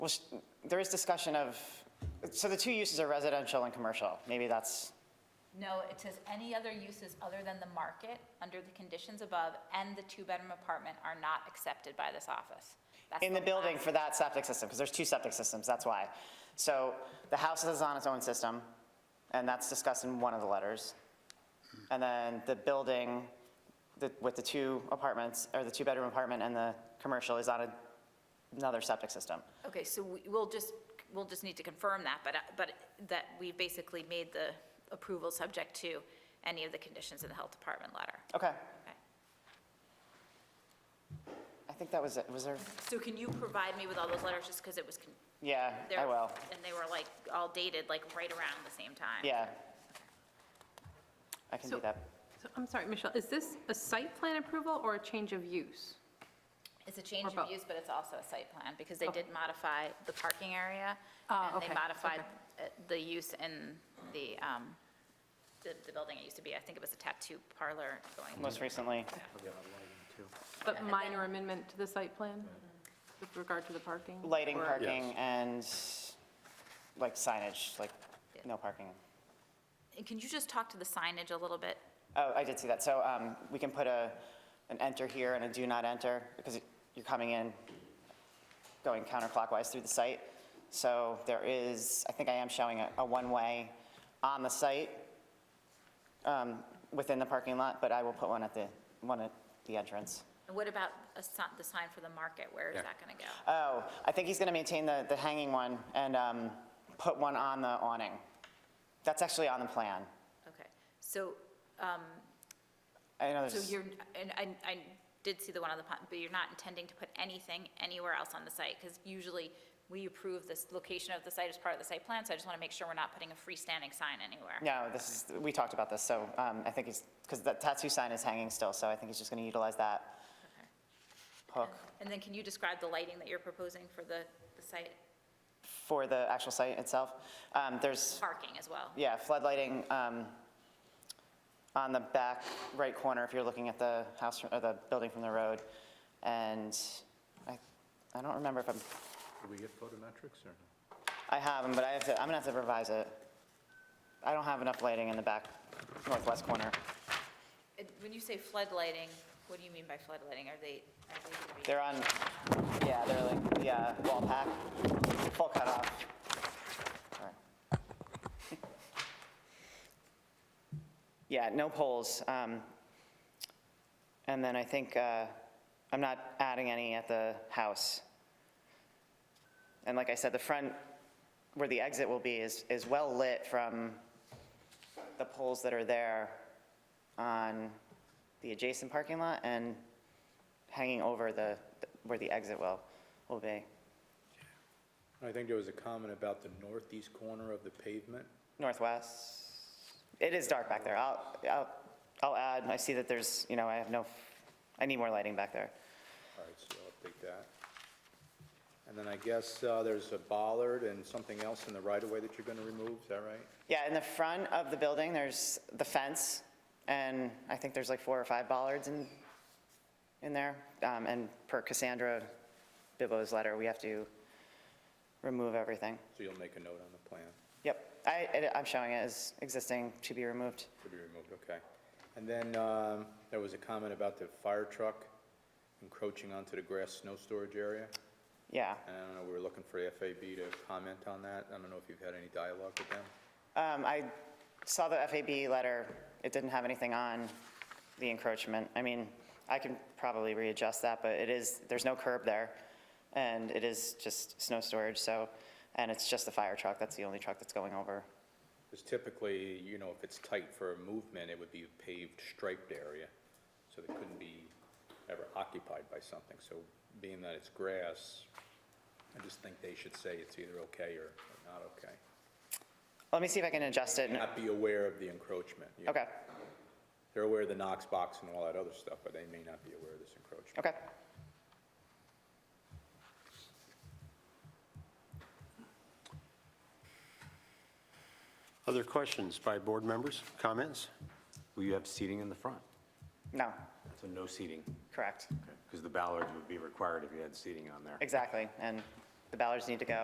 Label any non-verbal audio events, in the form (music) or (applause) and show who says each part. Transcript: Speaker 1: there is discussion of, so the two uses are residential and commercial. Maybe that's,
Speaker 2: No, it says any other uses other than the market, under the conditions above, and the two-bedroom apartment are not accepted by this office. That's
Speaker 1: in the building
Speaker 2: last-
Speaker 1: for that septic system, because there's two septic systems, that's why. So the house is on its own system, and that's discussed in one of the letters. And then the building the- with the two apartments, or the two-bedroom apartment and the commercial is on a- another septic system.
Speaker 2: Okay, so we- we'll just, we'll just need to confirm that, but, uh, but that we basically made the approval subject to any of the conditions in the health department letter.
Speaker 1: Okay,
Speaker 2: Okay.
Speaker 1: I think that was it. Was there,
Speaker 2: So can you provide me with all those letters, just because it was, con-
Speaker 1: yeah,
Speaker 2: there-
Speaker 1: I will.
Speaker 2: And they were like, all dated, like, right around the same time?
Speaker 1: Yeah. I can
Speaker 3: So-
Speaker 1: do that.
Speaker 3: So, I'm sorry, Michelle, is this a site plan approval or a change of use?
Speaker 2: It's a change of
Speaker 3: both?
Speaker 2: use, but it's also a site plan, because they did modify the parking area.
Speaker 3: Ah,
Speaker 2: And they
Speaker 3: okay,
Speaker 2: modified uh, the use in the, um, the the building it used to be, I think it was a tattoo parlor going.
Speaker 1: Most recently,
Speaker 3: But minor amendment to the site plan with regard to the parking?
Speaker 1: lighting,
Speaker 3: Or-
Speaker 1: parking, and like signage, like
Speaker 2: Yeah.
Speaker 1: no parking.
Speaker 2: And Can you just talk to the signage a little bit?
Speaker 1: Oh, I did see that. So um, we can put a, an enter here and a do not enter because you're coming in, going counterclockwise through the site. So there is, I think I am showing a, a one-way on the site um, within the parking lot, but I will put one at the, one at the entrance.
Speaker 2: And what about a si- the sign for the market, where is
Speaker 4: Yeah.
Speaker 2: that gonna go?
Speaker 1: Oh, I think he's going to maintain the, the hanging one and um, put one on the awning. That's actually on the plan.
Speaker 2: Okay, so,
Speaker 1: I know
Speaker 2: so
Speaker 1: there's,
Speaker 2: you're, and I, I did see the one on the pond, but you're not intending to put anything anywhere else on the site? Because usually, we approve this location of the site as part of the site plan, so I just wanna make sure we're not putting a freestanding sign anywhere.
Speaker 1: no, this is, we talked about this, so um, I think he's, because the tattoo sign is hanging still, so I think he's just going to utilize that hook
Speaker 2: And then can you describe the lighting that you're proposing for the, the site,
Speaker 1: for the actual site itself. Um, There's,
Speaker 2: parking as well?
Speaker 1: yeah, floodlighting um, on the back right corner if you're looking at the house, from- or the building from the road. And I, I don't remember if I'm
Speaker 4: Did we get photometrics or no?
Speaker 1: I have them, but I have to, I'm gonna have to revise it. I don't have enough lighting in the back northwest corner.
Speaker 2: And When you say floodlighting, what do you mean by floodlighting? Are they, are they gonna be?
Speaker 1: They're on, yeah, they're like the uh, wall pack, full cutoff. Sorry. (laughs) Yeah, no poles. um, And then I think, uh, I'm not adding any at the house. And like I said, the front, where the exit will be is, is well lit from the poles that are there on the adjacent parking lot and hanging over the, where the exit will, will be.
Speaker 4: I think there was a comment about the northeast corner of the pavement.
Speaker 1: Northwest, it is dark back there. I'll, I'll, I'll add, I see that there's, you know, I have no, I need more lighting back there.
Speaker 4: All right, so I'll take that. And then I guess uh, there's a bollard and something else in the right-of-way that you're going to remove, is that right?
Speaker 1: Yeah, in the front of the building, there's the fence, and I think there's like four or five bollards in, in there. Um, And per Cassandra Bibbo's letter, we have to remove everything.
Speaker 4: So you'll make a note on the plan
Speaker 1: Yep, I, I- I'm showing it as existing to be removed.
Speaker 4: to be removed, okay. And then um, there was a comment about the fire truck encroaching onto the grass snow storage area.
Speaker 1: Yeah.
Speaker 4: And I don't know, we were looking for the FAB to comment on that. I don't know if you've had any dialogue with them.
Speaker 1: Um, I saw the FAB letter, it didn't have anything on the encroachment. I mean, I can probably readjust that, but it is, there's no curb there, and it is just snow storage, so, and it's just the fire truck, that's the only truck that's going over.
Speaker 4: Because typically, you know, if it's tight for movement, it would be a paved striped area, so it couldn't be ever occupied by something. So being that it's grass, I just think they should say it's either okay or or not okay.
Speaker 1: Let me see if I can adjust it.
Speaker 4: Not be aware of the encroachment. you know.
Speaker 1: Okay,
Speaker 4: They're aware of the Knox box and all that other stuff, but they may not be aware of this encroachment.
Speaker 1: okay.
Speaker 5: Other questions by board members, comments?
Speaker 6: Will you have seating in the front?
Speaker 1: No,
Speaker 6: So no seating,
Speaker 1: correct,
Speaker 6: because the ballards would be required if you had seating on there.
Speaker 1: exactly, and the ballards need to go.